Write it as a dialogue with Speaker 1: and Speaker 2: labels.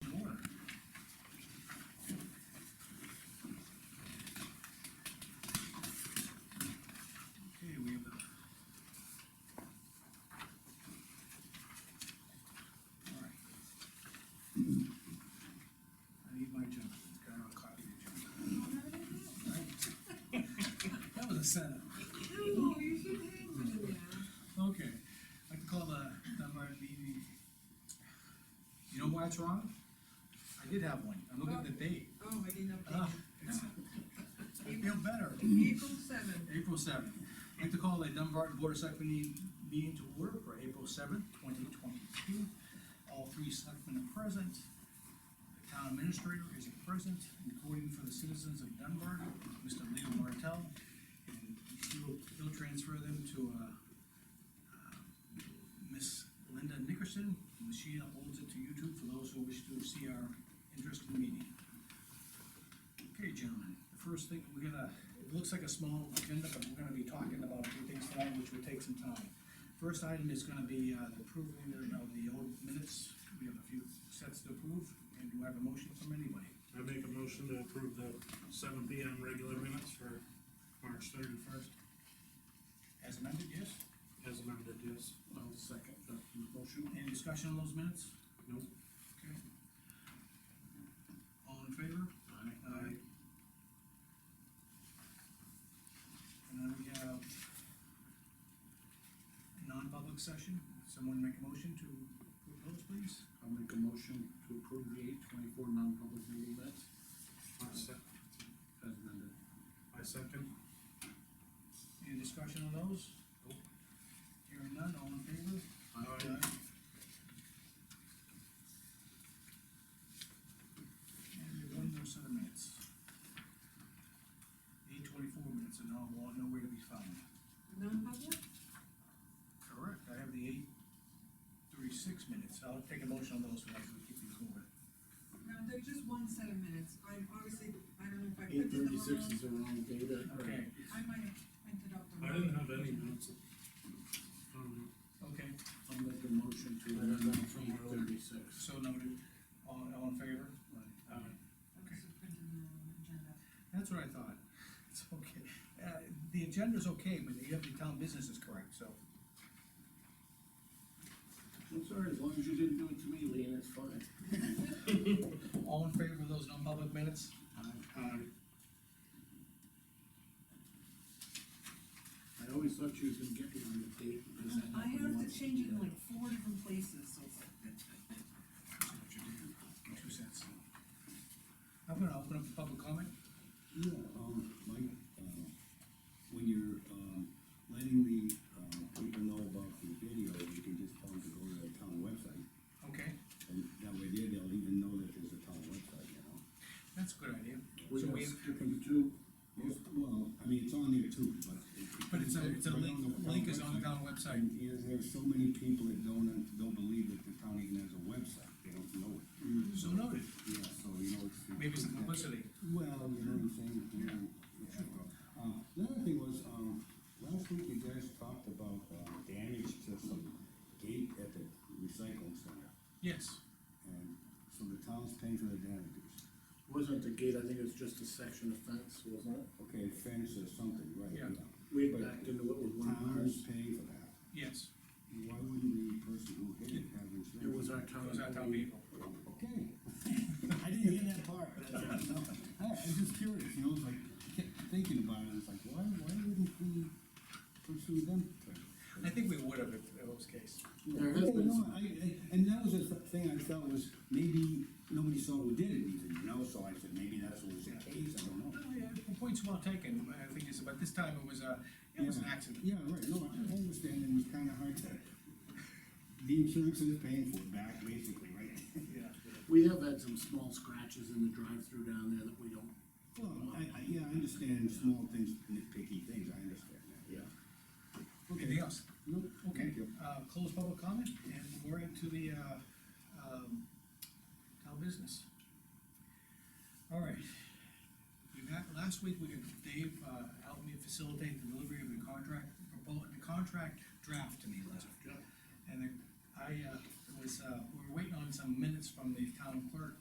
Speaker 1: percent.
Speaker 2: No, you should hang one in there.
Speaker 1: Okay, I can call the, the Martin meeting. You know why it's wrong? I did have one, I'm looking at the date.
Speaker 2: Oh, I didn't update.
Speaker 1: Ah, it's- I feel better.
Speaker 2: it. April seventh,
Speaker 1: April seventh. I'd like to call the Dunbarton Board of Selectmen meeting- meeting to order for April seventh, twenty twenty-two. All three selectmen are present. The town administrator is present, recording for the citizens of Dunbar, Mr. Leo Martell. And he'll, he'll transfer them to, uh, uh, Miss Linda Nickerson, and she uploads it to YouTube for those who wish to see our interesting meeting. Okay, gentlemen, the first thing, we're gonna, it looks like a small agenda, but we're gonna be talking about a few things tonight, which will take some time. First item is gonna be, uh, the approval of the old minutes, we have a few sets to approve, and do I have a motion from anybody?
Speaker 3: I make a motion to approve the seven P M regular minutes for March thirty-first,
Speaker 1: As amended, yes?
Speaker 3: as amended, yes.
Speaker 4: I'll second that motion.
Speaker 1: Any discussion on those minutes?
Speaker 3: Nope.
Speaker 1: Okay. All in favor?
Speaker 4: Aye.
Speaker 1: Aye. And then we have non-public session, someone make a motion to approve those, please?
Speaker 4: I'll make a motion to approve the eight twenty-four non-public meeting minutes
Speaker 3: I se-
Speaker 4: as amended.
Speaker 3: I second.
Speaker 1: Any discussion on those?
Speaker 3: Nope.
Speaker 1: Hearing none, all in favor?
Speaker 3: Aye.
Speaker 1: And we have one more set of minutes. Eight twenty-four minutes and all, well, nowhere to be found.
Speaker 2: non-public,
Speaker 1: Correct, I have the eight thirty-six minutes, I'll take a motion on those, so I can keep these moving.
Speaker 2: no, they're just one set of minutes, I obviously, I don't know if I
Speaker 4: Eight
Speaker 2: printed them
Speaker 4: thirty-six
Speaker 2: wrong.
Speaker 4: is the wrong date, I-
Speaker 1: Okay,
Speaker 2: I might have printed up the
Speaker 3: I
Speaker 2: wrong.
Speaker 3: didn't have any minutes. Um, I don't know.
Speaker 1: okay,
Speaker 4: I'll make a motion to amend that from eight thirty-six.
Speaker 1: so noted, all, all in favor?
Speaker 3: uh,
Speaker 1: Aye.
Speaker 2: I must have printed the wrong agenda.
Speaker 1: That's what I thought, it's okay, uh, the agenda's okay, but you have the town business is correct, so.
Speaker 4: I'm sorry, as long as you didn't do it to me, Lean, it's fine.
Speaker 1: All in favor of those non-public minutes?
Speaker 4: Aye. I always thought you was gonna get me on the date because that
Speaker 2: I
Speaker 4: happened
Speaker 2: have to
Speaker 4: once.
Speaker 2: change it in like four different places, so.
Speaker 1: Two cents. I'm gonna open up the public comment,
Speaker 5: Yeah, um, Mike, uh, when you're, um, letting the, uh, people know about the video, you can just tell them to go to the town website.
Speaker 1: okay,
Speaker 5: And that way there, they'll even know that there's a town website, you know?
Speaker 1: that's a good idea.
Speaker 4: We
Speaker 1: So
Speaker 4: have
Speaker 1: we have-
Speaker 4: skipping two,
Speaker 5: Most, well, I mean, it's on there too, but. it-
Speaker 1: But it's a, it's a
Speaker 5: right
Speaker 1: link,
Speaker 5: on the town
Speaker 1: link is on the
Speaker 5: website.
Speaker 1: town website,
Speaker 5: And there's, there's so many people that don't, don't believe that the town even has a website, they don't know it.
Speaker 1: so noted,
Speaker 5: Yeah, so, you know, it's.
Speaker 1: Mm. maybe some publicity.
Speaker 5: Well, you know what I'm saying, you know, yeah, well, uh, the other thing was, um, last week you guys talked about, uh, damage to some gate at the recycling center.
Speaker 1: Yes,
Speaker 5: And so the town's paying for the damages.
Speaker 4: wasn't the gate, I think it was just a section of fence, wasn't it?
Speaker 5: Okay, fence or something, right?
Speaker 1: Yeah.
Speaker 4: We
Speaker 5: But
Speaker 4: had backed into what was one of ours.
Speaker 5: Town's paying for that.
Speaker 1: yes,
Speaker 5: Why wouldn't the person who hit it have insurance?
Speaker 4: It was our town.
Speaker 1: that was our town vehicle.
Speaker 5: Okay. I didn't hear that part. I, I was just curious, you know, it's like, kept thinking about it, it's like, why, why wouldn't we pursue them?
Speaker 1: I think we would have if it was the case.
Speaker 4: There
Speaker 1: Mm-hmm.
Speaker 4: has
Speaker 5: Yeah,
Speaker 4: been
Speaker 5: no,
Speaker 4: some-
Speaker 5: I, I, and that was the thing I felt was, maybe nobody saw who did it even, you know, so I said, maybe that's what was the case, I don't know.
Speaker 1: No, yeah, the point's well taken, I think it's, but this time it was a, it was an accident.
Speaker 5: Yeah, right, no, I understand, it was kinda hard to, the insurance is paying for it back, basically, right?
Speaker 1: Yeah.
Speaker 4: We have had some small scratches in the drive-through down there that we don't.
Speaker 5: Well, I, I, yeah, I understand small things, nitpicky things, I understand that.
Speaker 4: Yeah.
Speaker 5: Okay.
Speaker 1: Anything else?
Speaker 5: Nope,
Speaker 1: Okay,
Speaker 5: thank you.
Speaker 1: uh, close public comment, and we're into the, uh, um, town business. All right. We've had, last week, we had Dave, uh, helped me facilitate the delivery of the contract, propo- the contract draft to me last week. And then I, uh, was, uh, we were waiting on some minutes from the town clerk